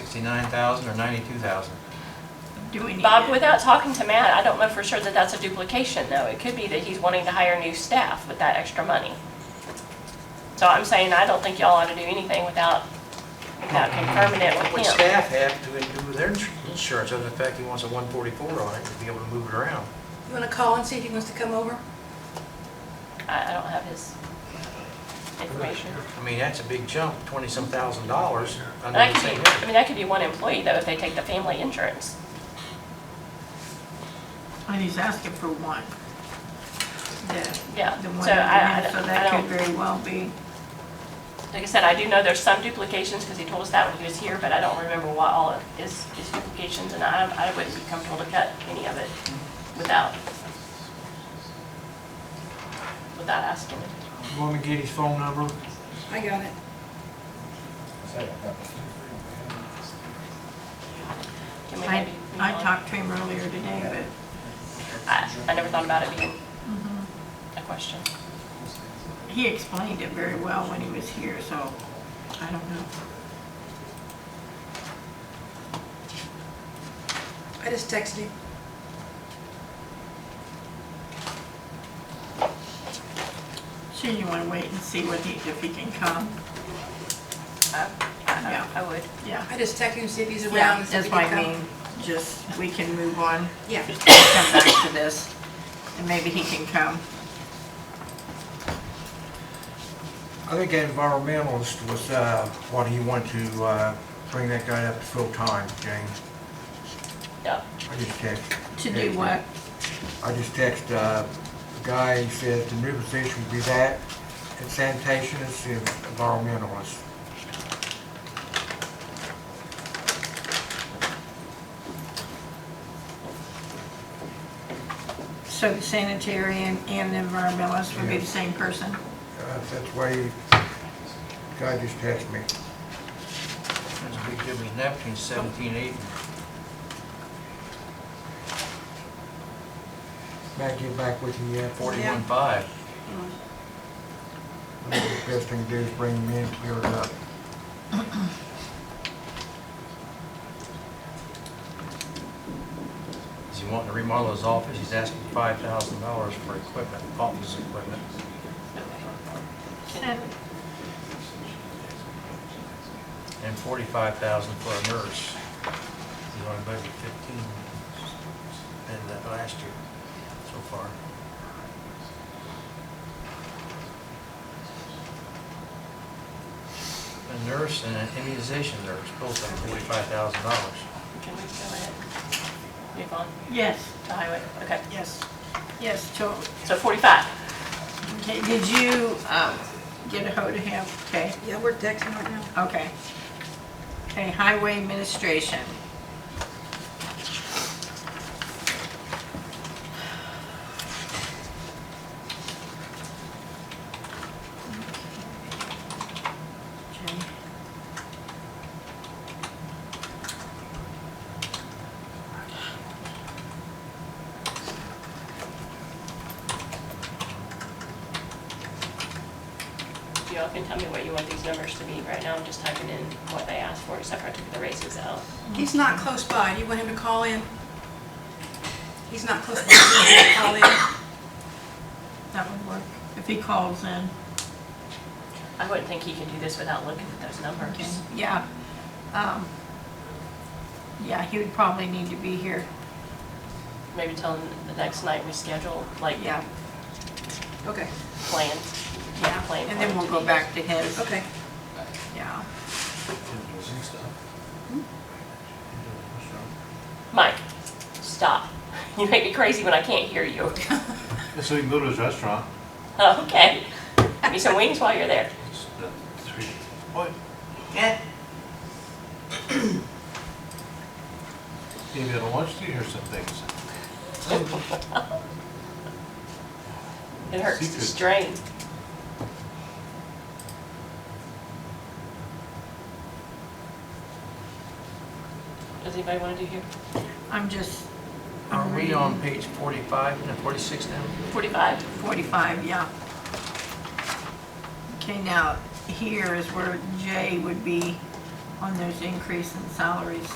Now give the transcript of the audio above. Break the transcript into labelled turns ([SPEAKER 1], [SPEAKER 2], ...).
[SPEAKER 1] sixty-nine thousand or ninety-two thousand?
[SPEAKER 2] Do we need
[SPEAKER 3] Bob,
[SPEAKER 2] it?
[SPEAKER 3] without talking to Matt, I don't know for sure that that's a duplication, though. It could be that he's wanting to hire new staff with that extra money. So I'm saying I don't think y'all ought to do anything without, without confirming it
[SPEAKER 1] What would
[SPEAKER 3] with him.
[SPEAKER 1] staff have to do with their ins- insurance, other than the fact he wants a one forty-four on it, to be able to move it around?
[SPEAKER 4] You want to call and see if he wants to come over?
[SPEAKER 3] I, I don't have his information.
[SPEAKER 1] I mean, that's a big jump, twenty-some thousand dollars
[SPEAKER 3] And
[SPEAKER 1] under
[SPEAKER 3] that
[SPEAKER 1] the
[SPEAKER 3] could
[SPEAKER 1] same
[SPEAKER 3] be, I
[SPEAKER 1] head.
[SPEAKER 3] mean, that could be one employee, though, if they take the family insurance.
[SPEAKER 2] And he's asking for one. The-
[SPEAKER 3] Yeah,
[SPEAKER 2] The one,
[SPEAKER 3] so I-
[SPEAKER 2] underneath,
[SPEAKER 3] I-
[SPEAKER 2] so
[SPEAKER 3] I
[SPEAKER 2] that could
[SPEAKER 3] don't-
[SPEAKER 2] very well be.
[SPEAKER 3] Like I said, I do know there's some duplications, because he told us that when he was here, but I don't remember what all of his, his duplications, and I, I wouldn't be comfortable to cut any of it without, without asking him.
[SPEAKER 5] You want me to get his phone number?
[SPEAKER 4] I got it.
[SPEAKER 3] Can we
[SPEAKER 2] I,
[SPEAKER 3] maybe? move
[SPEAKER 2] I
[SPEAKER 3] on?
[SPEAKER 2] talked to him earlier today,
[SPEAKER 3] I, I never thought about it being a question.
[SPEAKER 2] but he explained it very well when he was here, so I don't know.
[SPEAKER 4] I just texted him.
[SPEAKER 2] So you want to wait and see what he, if he can come?
[SPEAKER 4] Uh,
[SPEAKER 3] I, I,
[SPEAKER 2] Yeah.
[SPEAKER 3] I would.
[SPEAKER 2] Yeah.
[SPEAKER 4] I just texted him to see if he's
[SPEAKER 2] Yeah,
[SPEAKER 4] around. and see if
[SPEAKER 2] that's
[SPEAKER 4] he
[SPEAKER 2] what
[SPEAKER 4] can
[SPEAKER 2] I
[SPEAKER 4] come.
[SPEAKER 2] mean, just, we can move on.
[SPEAKER 4] Yeah.
[SPEAKER 2] Just Come back to this, and maybe he can come.
[SPEAKER 5] I think that environmentalist was uh, what he wanted to uh, bring that guy up to full-time, James.
[SPEAKER 3] Yeah.
[SPEAKER 5] I just text.
[SPEAKER 2] To do what?
[SPEAKER 5] I just text, uh, the guy, he said the new position would be that, and sanitation is the environmentalist.
[SPEAKER 2] So the sanitary and, and the environmentalist would be the
[SPEAKER 5] Yeah.
[SPEAKER 2] same person?
[SPEAKER 5] Uh, That's why he, the guy just texted me.
[SPEAKER 1] That's a big jump, he's now between seventeen and eighteen.
[SPEAKER 5] Matt, get back with him yet?
[SPEAKER 1] Forty-one five.
[SPEAKER 5] I think The best thing to do is bring him in, clear it up.
[SPEAKER 1] Is he wanting to remodel his office? He's asking five thousand dollars for equipment, office equipment. and forty-five thousand for a nurse. He's only budgeted fifteen in the last year so far. A nurse and an immunization nurse, both at forty-five thousand dollars.
[SPEAKER 3] Can we go ahead? Move on
[SPEAKER 2] Yes,
[SPEAKER 3] to highway, okay.
[SPEAKER 2] yes, yes, so,
[SPEAKER 3] So forty-five.
[SPEAKER 2] okay, did you, um, get a hold of him? Okay,
[SPEAKER 4] Yeah, we're texting right now.
[SPEAKER 2] okay. Okay, highway administration. Okay.
[SPEAKER 3] Y'all can tell me what you want these numbers to be. Right now, I'm just typing in what they asked for, except for I took the raises out.
[SPEAKER 4] He's not close by. Do you want him to call in? He's not close by. Do you want him to Call in.
[SPEAKER 2] That would work, if he calls in.
[SPEAKER 3] I wouldn't think he can do this without looking at those numbers.
[SPEAKER 2] Yeah. Um, Yeah, he would probably need to be here,
[SPEAKER 3] Maybe till the next night we schedule, like,
[SPEAKER 2] yeah,
[SPEAKER 4] Okay,
[SPEAKER 3] plan.
[SPEAKER 2] yeah.
[SPEAKER 3] Plan
[SPEAKER 2] And then
[SPEAKER 3] for it
[SPEAKER 2] we'll
[SPEAKER 3] to
[SPEAKER 2] go
[SPEAKER 3] be-
[SPEAKER 2] back to his,
[SPEAKER 4] okay.
[SPEAKER 2] yeah.
[SPEAKER 3] Mike, stop. You make me crazy when I can't hear you. Oh,
[SPEAKER 6] So you can go to his restaurant.
[SPEAKER 3] Okay. Give me some wings while you're there.
[SPEAKER 6] It's the three, what? Maybe at a lunch to hear some things.
[SPEAKER 3] It hurts to
[SPEAKER 6] Secret.
[SPEAKER 3] strain. Does anybody want to do here?
[SPEAKER 2] I'm just.
[SPEAKER 1] Are we on page forty-five and forty-six now?
[SPEAKER 3] Forty-five?
[SPEAKER 2] Forty-five, yeah. Okay, now, here is where J would be on those increase in salaries.